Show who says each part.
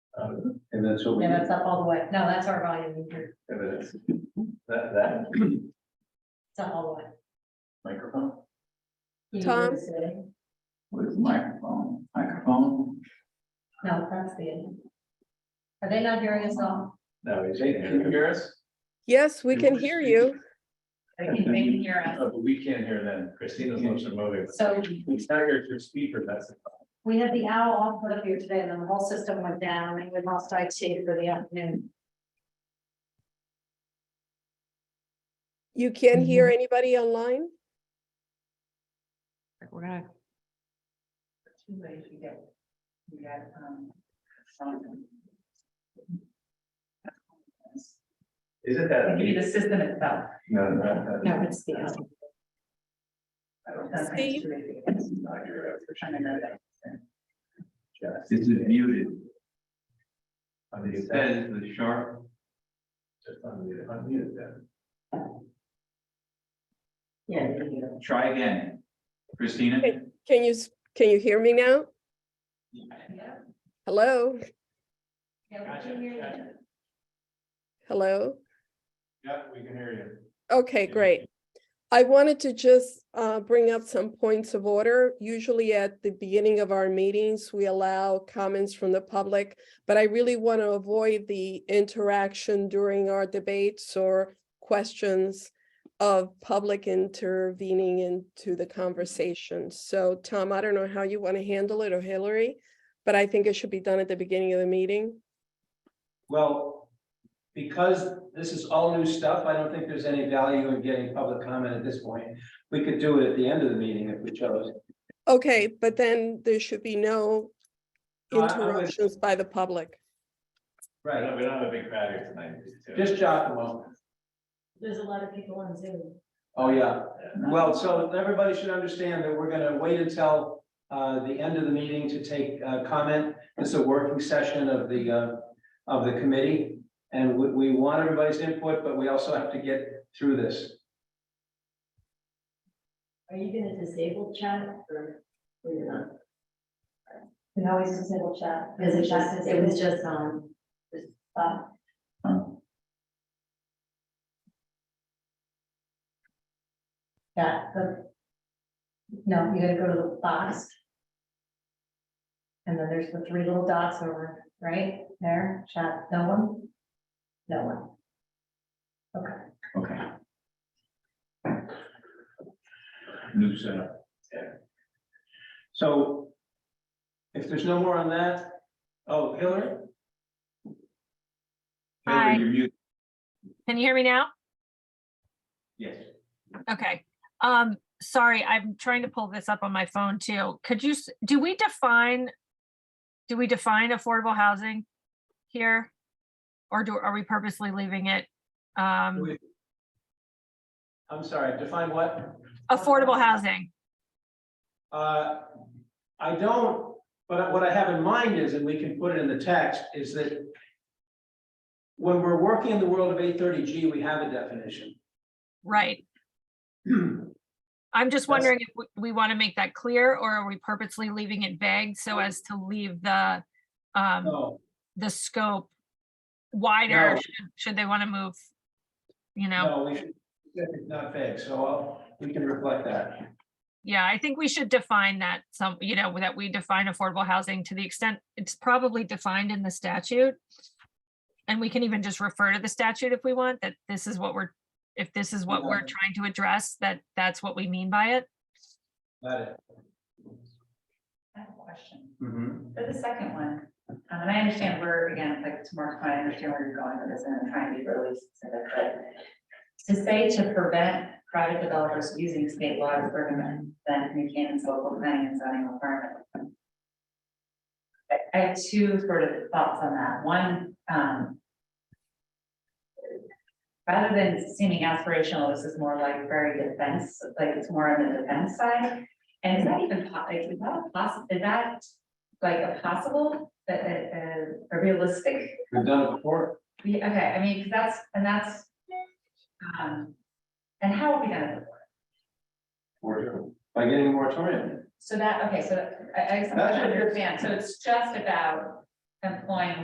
Speaker 1: Uh, And then she'll be,
Speaker 2: Yeah, that's up all the way. No, that's our volume meter.
Speaker 1: and then it's that, that
Speaker 2: It's up all the way.
Speaker 1: microphone,
Speaker 2: You can
Speaker 3: Tom?
Speaker 2: do this thing.
Speaker 1: where's the microphone, microphone?
Speaker 2: No, that's the end. Are they not hearing us all?
Speaker 1: No, is it, can you hear us?
Speaker 3: Yes, we
Speaker 1: You
Speaker 3: can
Speaker 1: were
Speaker 3: hear
Speaker 1: speaking.
Speaker 3: you.
Speaker 2: They can, they can hear us.
Speaker 1: Oh, but we can't hear them, Christina's lips are moving.
Speaker 2: So
Speaker 1: We can hear your speaker, that's the problem.
Speaker 2: we had the owl all put up here today and then the whole system went down and we lost IT for the afternoon.
Speaker 3: You can't hear anybody online?
Speaker 4: We're gonna,
Speaker 2: Two ways you get. You got, um. phone.
Speaker 1: Is it
Speaker 2: It
Speaker 1: that?
Speaker 2: could be the system itself.
Speaker 1: No, no, no. no.
Speaker 4: no, it's the, owl.
Speaker 1: I don't know.
Speaker 2: That's my
Speaker 3: Steve?
Speaker 2: theory.
Speaker 1: It's not your
Speaker 2: I don't know
Speaker 1: efficient.
Speaker 2: that.
Speaker 1: Just-
Speaker 5: Is it muted?
Speaker 1: I mean,
Speaker 5: It
Speaker 1: it's that,
Speaker 5: says the sharp,
Speaker 1: just unmute, it, unmute it then.
Speaker 2: Yeah. you can hear us.
Speaker 5: try again. Christina?
Speaker 3: Okay. Can you, s- can you hear me now?
Speaker 2: Yeah.
Speaker 3: Hello?
Speaker 2: Yeah, we can hear you.
Speaker 3: Hello?
Speaker 1: Yeah, we can hear you.
Speaker 3: Okay, great. I wanted to just uh, bring up some points of order. Usually at the beginning of our meetings, we allow comments from the public, but I really want to avoid the interaction during our debates or questions of public intervening into the conversation. So Tom, I don't know how you want to handle it or Hillary, but I think it should be done at the beginning of the meeting.
Speaker 6: Well, because this is all new stuff, I don't think there's any value in getting public comment at this point. We could do it at the end of the meeting if we chose.
Speaker 3: Okay, but then there should be no
Speaker 6: No, I- I would-
Speaker 3: interruptions by the public.
Speaker 1: I
Speaker 6: Right,
Speaker 1: know, we don't have a big crowd here tonight. so-
Speaker 6: just Giacomo.
Speaker 2: There's a lot of people on Zoom.
Speaker 6: Oh, yeah. Well, so everybody should understand that we're gonna wait until uh the end of the meeting to take uh comment. This is a working session of the uh of the committee. And we we want everybody's input, but we also have to get through this.
Speaker 2: Are you gonna disable chat or, or you're not? We always disable chat. Is it just, it was just on.
Speaker 5: Um,
Speaker 2: Yeah, the. No, you gotta go to the box. And then there's the three little dots over, right, there, chat, no one? No one.
Speaker 5: Okay.
Speaker 1: New setup.
Speaker 6: So if there's no more on that, oh, Hillary?
Speaker 5: Hillary,
Speaker 7: Hi.
Speaker 5: You're muted.
Speaker 7: Can you hear me now?
Speaker 5: Yes.
Speaker 7: Okay. Um, sorry, I'm trying to pull this up on my phone too. Could you, s- do we define? Do we define affordable housing here? Or do, are we purposely leaving it? Um,
Speaker 6: We- I'm sorry, define what?
Speaker 7: affordable housing.
Speaker 6: Uh, I don't, but what I have in mind is, and we can put it in the text, is that when we're working in the world of eight thirty G, we have a definition.
Speaker 7: Right. I'm just wondering if we- we want to make that clear or are we purposely leaving it vague so as to leave the, um,
Speaker 6: No,
Speaker 7: the scope wider?
Speaker 6: No.
Speaker 7: should- Should they want to move? You know,
Speaker 6: no, we should, it's not vague, so I'll- we can reflect that.
Speaker 7: yeah, I think we should define that some, you know, that we define affordable housing to the extent it's probably defined in the statute. And we can even just refer to the statute if we want, that this is what we're, if this is what we're
Speaker 6: Yeah.
Speaker 7: trying to address, that that's what we mean by it.
Speaker 6: Got it.
Speaker 8: I have a question.
Speaker 6: Mhm.
Speaker 8: For the second one, um, and I understand where, again, like tomorrow's point, I understand where you're going with this and I'm trying to be really specific, but to say to prevent private developers using state law to circumvent then New Canaan's local planning and zoning requirement. I- I have two sort of thoughts on that. One, um, rather than seeming aspirational, this is more like very defense, like it's more on the defense side. And is that even, po- like, is that possible, is that like a possible, a, a, a- a realistic,
Speaker 6: We've done it before.
Speaker 8: we, okay, I mean, 'cause that's, and that's, um, and how are we gonna,
Speaker 6: Or by getting a moratorium.
Speaker 8: so that, okay, so I, I
Speaker 6: That's what it is.
Speaker 8: understand, so it's just about employing